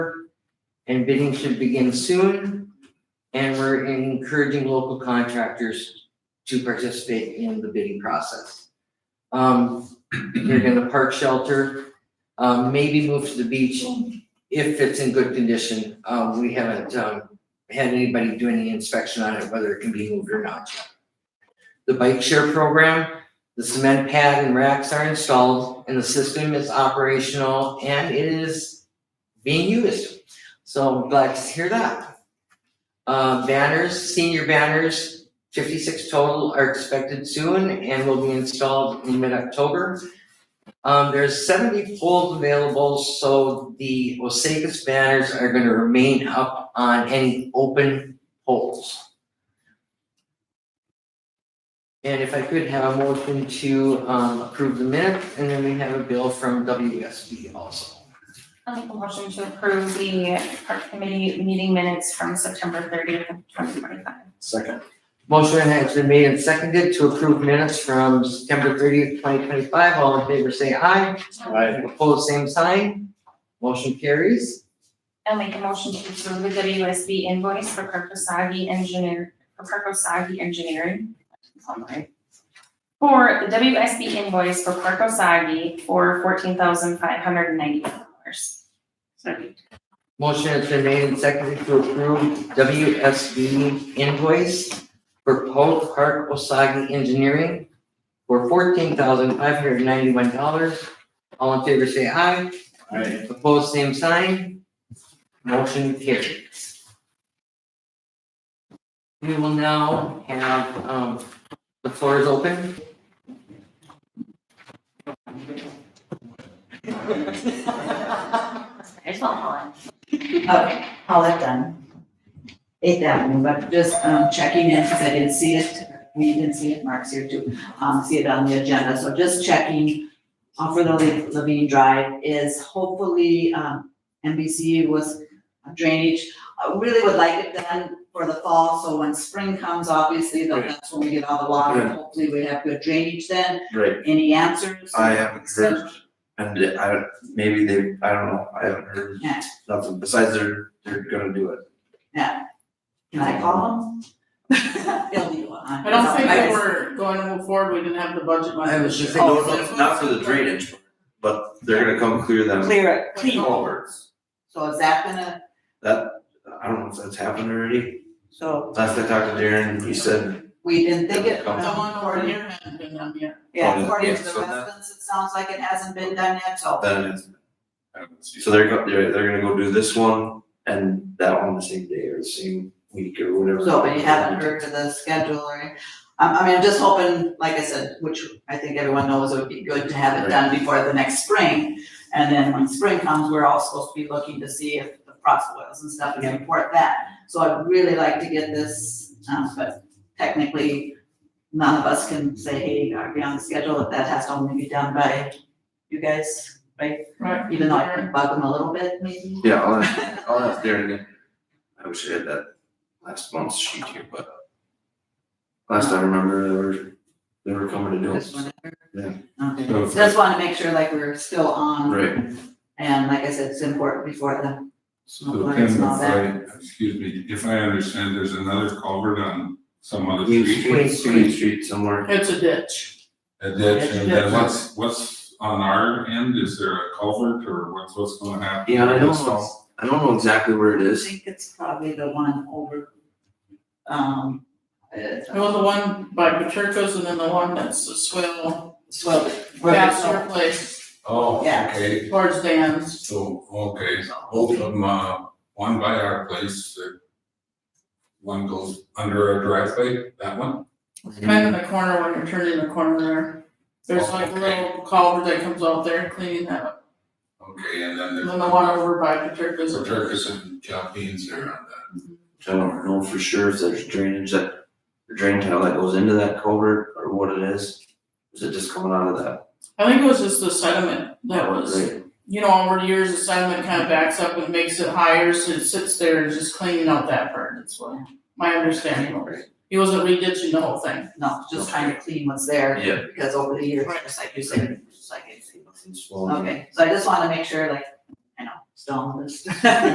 and bidding should begin soon. And we're encouraging local contractors to participate in the bidding process. Um, they're gonna park shelter, um, maybe move to the beach if it's in good condition. Um, we haven't, um, had anybody do any inspection on it, whether it can be moved or not yet. The bike share program, the cement pad and racks are installed and the system is operational and it is being used. So I'm glad to hear that. Uh, banners, senior banners, fifty-six total are expected soon and will be installed in mid-October. Um, there's seventy poles available, so the Osakas banners are gonna remain up on any open poles. And if I could have a motion to um approve the minute, and then we have a bill from WSB also. I'll make a motion to approve the park committee meeting minutes from September thirtieth of twenty twenty-five. Second. Motion has been made and seconded to approve minutes from September thirtieth, twenty twenty-five. All in favor, say aye. Aye. Opposed, same sign. Motion carries. I'll make a motion to approve the WSB invoice for Kirkosagi Engineer, for Kirkosagi Engineering. That's all right. For the WSB invoice for Kirkosagi for fourteen thousand five hundred and ninety dollars. Sorry. Motion has been made and seconded to approve WSB invoice for Polk Park Osage Engineering for fourteen thousand five hundred ninety-one dollars. All in favor, say aye. Aye. Opposed, same sign. Motion carries. We will now have, um, the floor is open. I just want Helen. Okay, all that done. Eighth Avenue, but just um, checking in, because I didn't see it, we didn't see it, Mark's here too, um, see it on the agenda, so just checking. uh, for the Lev- Levine Drive is hopefully, um, NBC was drainage. I really would like it done for the fall, so when spring comes, obviously, though, that's when we get all the water, Right. hopefully we have good drainage then. Right, Any answers? I haven't heard, and I, don't- maybe they, I don't know, I haven't heard Yeah. nothing, besides they're, they're gonna do it. Can I call them? They'll be on. I don't think I they just- were going to move forward, we didn't have the budget money. Oh, I was just saying- Oh, Oh, No, no, not for the drainage, but they're gonna come clear them Clear it, clean it. culverts. So is that gonna, That, I don't know if that's happened already, so last I talked to Darren, he said, we didn't think it. Come Someone over here hadn't been done yet. Yeah, according Yeah, to the so that- residents, it sounds like it hasn't been done yet, so. then it's. So they're go, they're, they're gonna go do this one and that one the same day or the same week or whatever. So, but you haven't heard to the schedule or, I, I mean, I'm just hoping, like I said, which I think everyone knows, it would be good to have it done before the next spring. And then when spring comes, we're all supposed to be looking to see if the frost boils and stuff and report that. So I'd really like to get this, um, but technically, none of us can say, hey, are we on the schedule, that has to only be done by you guys, right? Right. Even though I can bug them a little bit, maybe. Yeah, I'll ask, I'll ask Darren again. I wish I had that last month's sheet here, but last I remember, they were, they were coming to do Just it. whatever. Yeah. Okay, So- just wanna make sure like we're still on. Right. And like I said, it's important before the, So Like then, it's if not I, excuse me, if I understand, there's another culvert on some other Queen street, Street, Queen Street somewhere. It's a ditch. a ditch, Yes. and then what's, what's on our end, is there a culvert, or what's, what's gonna happen? Yeah, I don't know, Install? I don't know exactly where it I is. think it's probably the one over, um, uh, Well, the one by Paterka's and then the one that's the swill, well, where past it's- your place Oh, Yeah. okay, towards Dan's. so, okay, both of them, uh, one by our place, uh, one goes under our driveway, that one? Kind of in the corner when you're turning the corner there. There's like a little culvert that comes out there cleaning that up. Okay, and then And there's. then the one over by Paterka's. For Turkish and Chaldeans there on that. I don't know for sure if there's drainage that, drain tile that goes into that culvert or what it is. Is it just coming out of that? I think it was just the sediment that was, Right. you know, over the years, the sediment kind of backs up and makes it higher, so it sits there and just cleaning out that part. That's what my understanding was. He wasn't re-ditching the whole thing. no, just trying to clean what's there. Yeah. Because over the years, Right. just like you said, just like it's, It's swollen. okay, so I just wanna make sure like, I know, still on this.